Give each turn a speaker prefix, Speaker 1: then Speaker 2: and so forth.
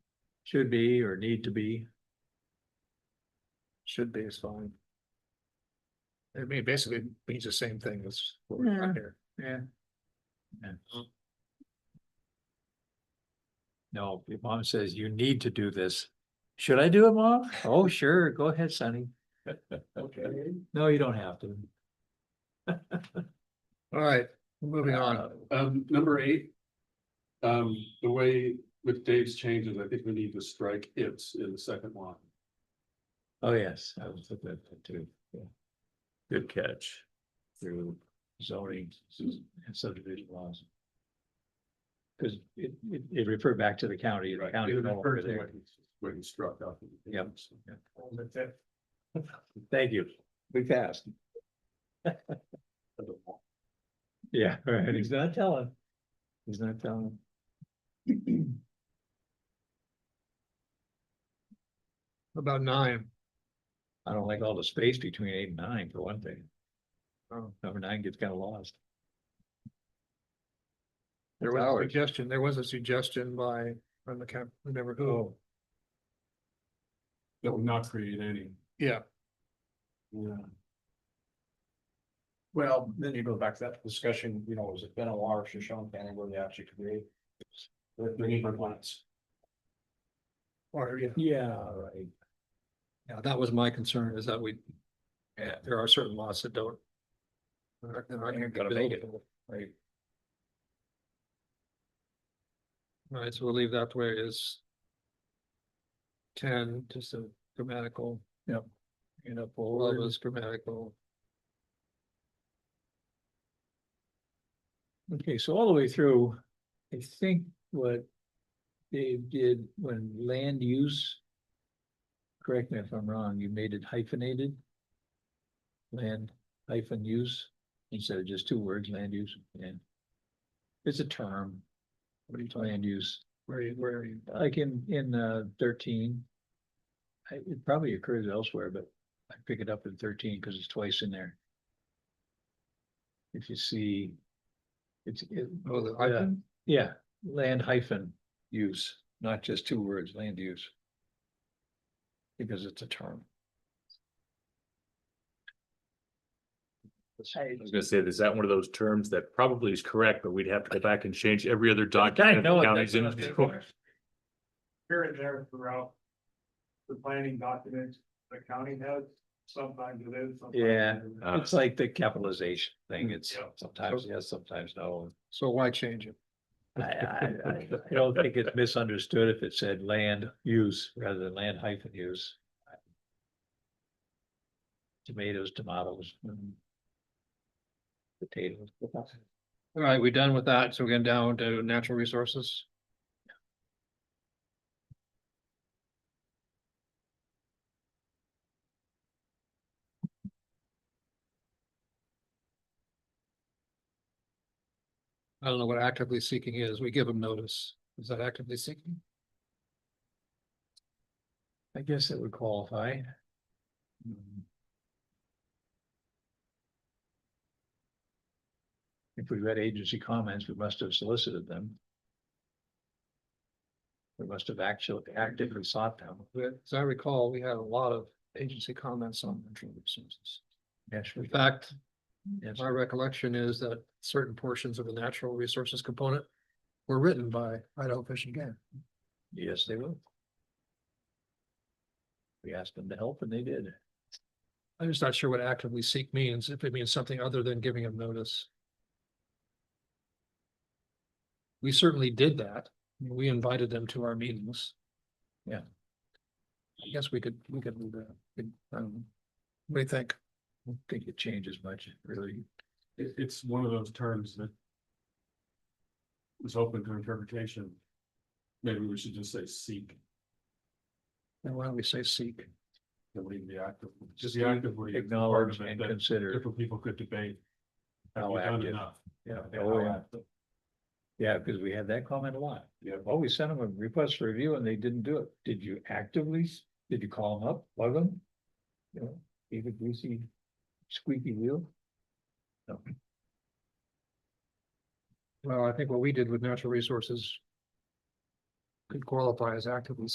Speaker 1: Should be or need to be. Should be is fine.
Speaker 2: I mean, basically means the same thing as what we're
Speaker 1: Yeah.
Speaker 2: doing here.
Speaker 1: Yeah. Yeah. No, your mom says you need to do this. Should I do it, mom? Oh, sure, go ahead, Sonny.
Speaker 2: Okay.
Speaker 1: No, you don't have to.
Speaker 2: All right, moving on.
Speaker 3: Um, number eight. Um, the way with Dave's changes, I think we need to strike its in the second line.
Speaker 1: Oh, yes, I was looking at that too. Yeah. Good catch. Through zoning and subdivision laws. Cause it, it, it referred back to the county. the county
Speaker 3: It
Speaker 1: no longer
Speaker 3: refers to
Speaker 1: there.
Speaker 3: what he- What he struck out.
Speaker 1: Yep. Thank you. We passed. Yeah, right. He's not telling. He's not telling.
Speaker 2: About nine,
Speaker 1: I don't like all the space between eight and nine for one thing.
Speaker 2: Oh,
Speaker 1: Number nine gets kind of lost.
Speaker 2: there
Speaker 1: It's
Speaker 2: was a
Speaker 1: ours.
Speaker 2: suggestion, there was a suggestion by, from the camp, remember
Speaker 1: Oh.
Speaker 2: who?
Speaker 3: That would not create any.
Speaker 2: Yeah,
Speaker 3: Yeah.
Speaker 4: Well, then you go back to that discussion, you know, was it Benoit or Shoshone County where they actually create? The, the neighbor plants.
Speaker 2: or, yeah,
Speaker 1: Yeah, right.
Speaker 2: yeah, that was my concern is that we, yeah, there are certain lots that don't. They're they're not gonna
Speaker 1: Gotta make
Speaker 2: build.
Speaker 1: it. Right.
Speaker 2: All right, so we'll leave that where it is. Ten, just a grammatical.
Speaker 1: Yep.
Speaker 2: You know, all of us grammatical.
Speaker 1: Okay, so all the way through, I think what Dave did when land use. Correct me if I'm wrong, you made it hyphenated. Land hyphen use instead of just two words, land use and. It's a term. What do you, land use?
Speaker 2: Where are you, where are you?
Speaker 1: like in, in uh, thirteen. I- It probably occurs elsewhere, but I pick it up in thirteen because it's twice in there. If you see. It's, it,
Speaker 2: Oh, the
Speaker 1: Yeah.
Speaker 2: hyphen?
Speaker 1: yeah, land hyphen use, not just two words, land use. Because it's a term.
Speaker 5: I was gonna say, is that one of those terms that probably is correct, but we'd have to go back and change every other document.
Speaker 1: know
Speaker 5: the
Speaker 1: it,
Speaker 5: county's in.
Speaker 1: that's
Speaker 4: Here and there throughout the planning documents, the county has, sometimes it is. sometimes it
Speaker 1: Yeah.
Speaker 4: isn't.
Speaker 5: Uh,
Speaker 1: It's like the capitalization thing. It's
Speaker 4: Yeah.
Speaker 1: sometimes yes, sometimes no.
Speaker 2: So why change it?
Speaker 1: I, I, I- I don't think it's misunderstood if it said land use rather than land hyphen use. Tomatoes, tomatoes. mm, Potatoes.
Speaker 2: All right, we're done with that, so we're getting down to natural resources. I don't know what actively seeking is, we give them notice, is that actively seeking?
Speaker 1: I guess it would qualify. Mm-hmm. If we read agency comments, we must have solicited them. We must have actually actively sought them.
Speaker 2: But as I recall, we had a lot of agency comments on natural resources.
Speaker 1: Yes,
Speaker 2: In
Speaker 1: we-
Speaker 2: fact,
Speaker 1: yes.
Speaker 2: my recollection is that certain portions of the natural resources component were written by Idaho Fish and Game.
Speaker 1: Yes, they will. We asked them to help and they did.
Speaker 2: I'm just not sure what actively seek means, if it means something other than giving them notice. We certainly did that. We invited them to our meetings.
Speaker 1: Yeah.
Speaker 2: I guess we could, we could move that. We- um, What do you think?
Speaker 1: I don't think it changes much, really.
Speaker 3: It, it's one of those terms that. Is open to interpretation. Maybe we should just say seek,
Speaker 2: And why don't we say seek?
Speaker 3: delete the active, just the active. word is the part
Speaker 1: Acknowledge
Speaker 3: of it
Speaker 1: and
Speaker 3: that
Speaker 1: consider.
Speaker 3: Different people could debate. Have
Speaker 1: How
Speaker 3: we done
Speaker 1: active.
Speaker 3: enough?
Speaker 1: Yeah,
Speaker 3: Yeah,
Speaker 1: oh,
Speaker 3: how
Speaker 1: yeah.
Speaker 3: active.
Speaker 1: Yeah, because we had that comment a lot.
Speaker 3: Yeah.
Speaker 1: Oh, we sent them a request for review and they didn't do it. Did you actively, s- did you call them up, bug them? You know, gave a greasy squeaky wheel?
Speaker 2: Well, I think what we did with natural resources could qualify as actively